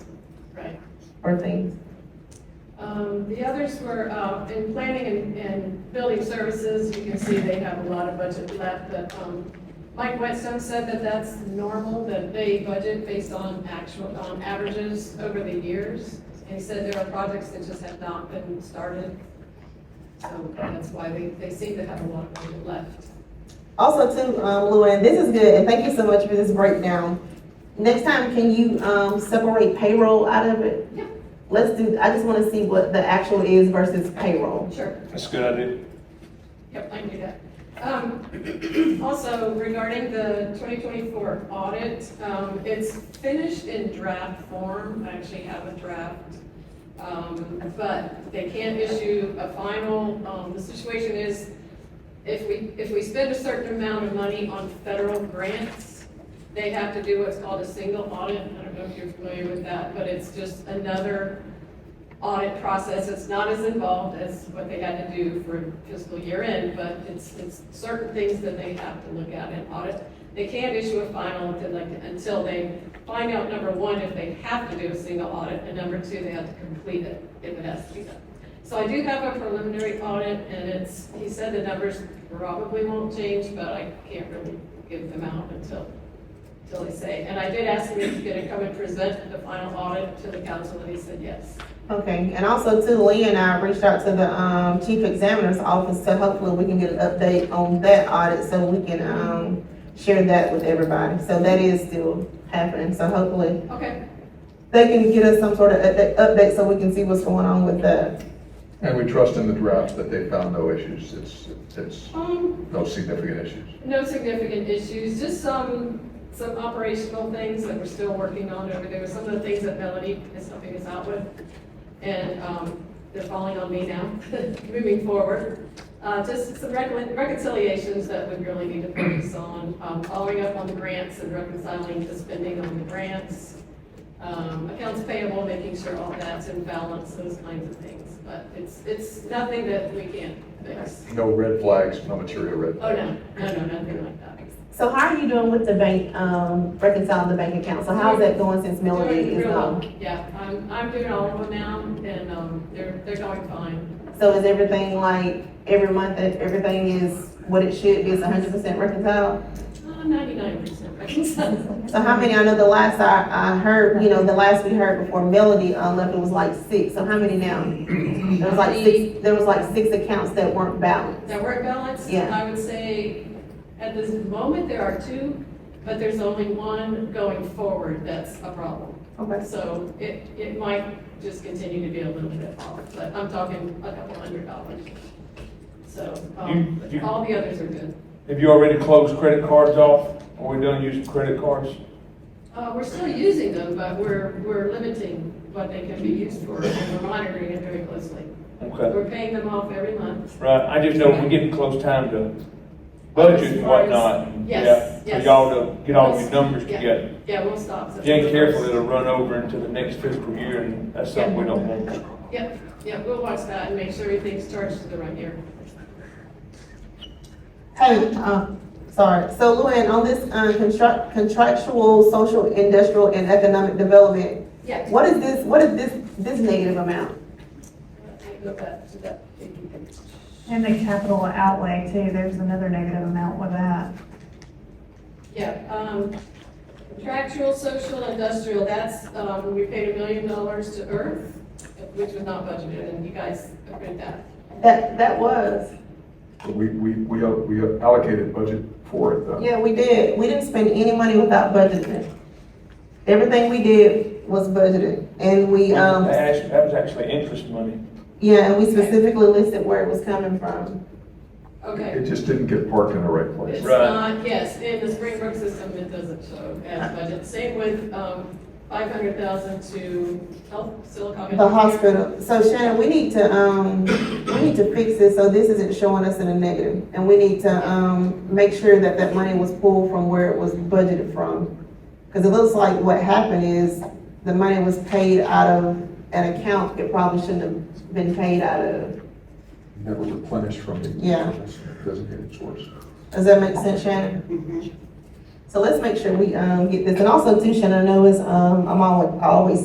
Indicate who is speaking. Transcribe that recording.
Speaker 1: or things?
Speaker 2: Um, the others were, uh, in planning and, and building services, you can see they have a lot of budget left, but, um, Mike Whetstone said that that's normal, that they budget based on actual, on averages over the years. And he said there are projects that just have not been started, so that's why they, they seem to have a lot of budget left.
Speaker 1: Also too, um, Luann, this is good, and thank you so much for this breakdown. Next time, can you, um, separate payroll out of it?
Speaker 2: Yeah.
Speaker 1: Let's do, I just wanna see what the actual is versus payroll.
Speaker 2: Sure.
Speaker 3: That's a good idea.
Speaker 2: Yep, I knew that. Um, Also, regarding the 2024 audit, um, it's finished in draft form. I actually have a draft. Um, But they can't issue a final. Um, The situation is, if we, if we spend a certain amount of money on federal grants, they have to do what's called a single audit. I don't know if you're familiar with that, but it's just another audit process, it's not as involved as what they had to do for fiscal year end, but it's, it's certain things that they have to look at in audit. They can't issue a final until like, until they find out, number one, if they have to do a single audit, and number two, they have to complete it if it has to be done. So I do have a preliminary audit, and it's, he said the numbers probably won't change, but I can't really give them out until, until they say. And I did ask him if he's gonna come and present the final audit to the council, and he said yes.
Speaker 1: Okay, and also too, Lee and I reached out to the, um, chief examiner's office, so hopefully we can get an update on that audit, so we can, um, share that with everybody, so that is still happening, so hopefully
Speaker 2: Okay.
Speaker 1: they can get us some sort of update, update so we can see what's going on with that.
Speaker 4: And we trust in the drafts that they found no issues, it's, it's
Speaker 2: Um,
Speaker 4: no significant issues.
Speaker 2: no significant issues, just some, some operational things that we're still working on over there. Some of the things that Melanie is helping us out with. And, um, they're falling on me now, moving forward. Uh, just some recon- reconciliations that we really need to focus on, um, following up on the grants and reconciling the spending on the grants. Um, accounts payable, making sure all that's in balance, those kinds of things. But it's, it's nothing that we can't fix.
Speaker 4: No red flags, no material red
Speaker 2: Oh,
Speaker 4: flags.
Speaker 2: no, no, no, nothing like that.
Speaker 1: So how are you doing with the bank, um, reconciling the bank account, so how's that going since Melody
Speaker 2: Doing
Speaker 1: is
Speaker 2: real well.
Speaker 1: gone?
Speaker 2: Yeah, I'm, I'm doing all of them now, and, um, they're, they're going fine.
Speaker 1: So is everything like, every month, that everything is what it should be, it's hundred percent reconciled?
Speaker 2: Uh, Ninety-nine percent reconciled.
Speaker 1: So how many, I know the last I, I heard, you know, the last we heard before Melody, uh, left, it was like six, so how many now? There was like six, there was like six accounts that weren't balanced.
Speaker 2: That work balance,
Speaker 1: Yeah.
Speaker 2: I would say, at this moment, there are two, but there's only one going forward that's a problem.
Speaker 1: Okay.
Speaker 2: So it, it might just continue to be a little bit off, but I'm talking a couple hundred dollars. So, um,
Speaker 3: You- you-
Speaker 2: all the others are good.
Speaker 3: Have you already closed credit cards off? Are we done using credit cards?
Speaker 2: Uh, we're still using them, but we're, we're limiting what they can be used for, and we're monitoring it very closely.
Speaker 3: Okay,
Speaker 2: We're paying them off every month.
Speaker 3: right, I just know we're getting close time to budget and whatnot. and,
Speaker 2: Yes,
Speaker 3: yeah,
Speaker 2: yes.
Speaker 3: For y'all to get all your numbers
Speaker 2: Yeah.
Speaker 3: together.
Speaker 2: Yeah, we'll stop.
Speaker 3: If you ain't careful, it'll run over into the next fiscal year, and that's something we don't want.
Speaker 2: Yep, yep, we'll watch that and make sure everything's charged to the right year.
Speaker 1: Hey, uh, sorry, so Luann, on this, uh, contract, contractual, social, industrial, and economic development,
Speaker 2: Yeah.
Speaker 1: what is this, what is this, this negative amount?
Speaker 2: Go back to that.
Speaker 5: And the capital outlay too, there's another negative amount with that.
Speaker 2: Yeah, um, contractual, social, industrial, that's, um, we paid a million dollars to Earth, which was not budgeted, and you guys approved that.
Speaker 1: That, that was,
Speaker 4: We, we, we al- we allocated budget for it, though.
Speaker 1: yeah, we did, we didn't spend any money without budgeting. Everything we did was budgeted, and we, um,
Speaker 3: That actually- that was actually interest money.
Speaker 1: Yeah, and we specifically listed where it was coming from.
Speaker 2: Okay.
Speaker 4: It just didn't get parked in the right
Speaker 2: It's
Speaker 4: place.
Speaker 3: Right.
Speaker 2: not, yes, in the Springbrook system, it doesn't show as budget. Same with, um, five hundred thousand to health, Silicon.
Speaker 1: The hospital, so Shannon, we need to, um, we need to fix this, so this isn't showing us in a negative. And we need to, um, make sure that that money was pulled from where it was budgeted from. Cause it looks like what happened is the money was paid out of an account it probably shouldn't have been paid out of.
Speaker 4: Never replenished from the
Speaker 1: Yeah.
Speaker 4: designated source.
Speaker 1: Does that make sense, Shannon? So let's make sure we, um, get this, and also too, Shannon, I know it's, um, I'm always, always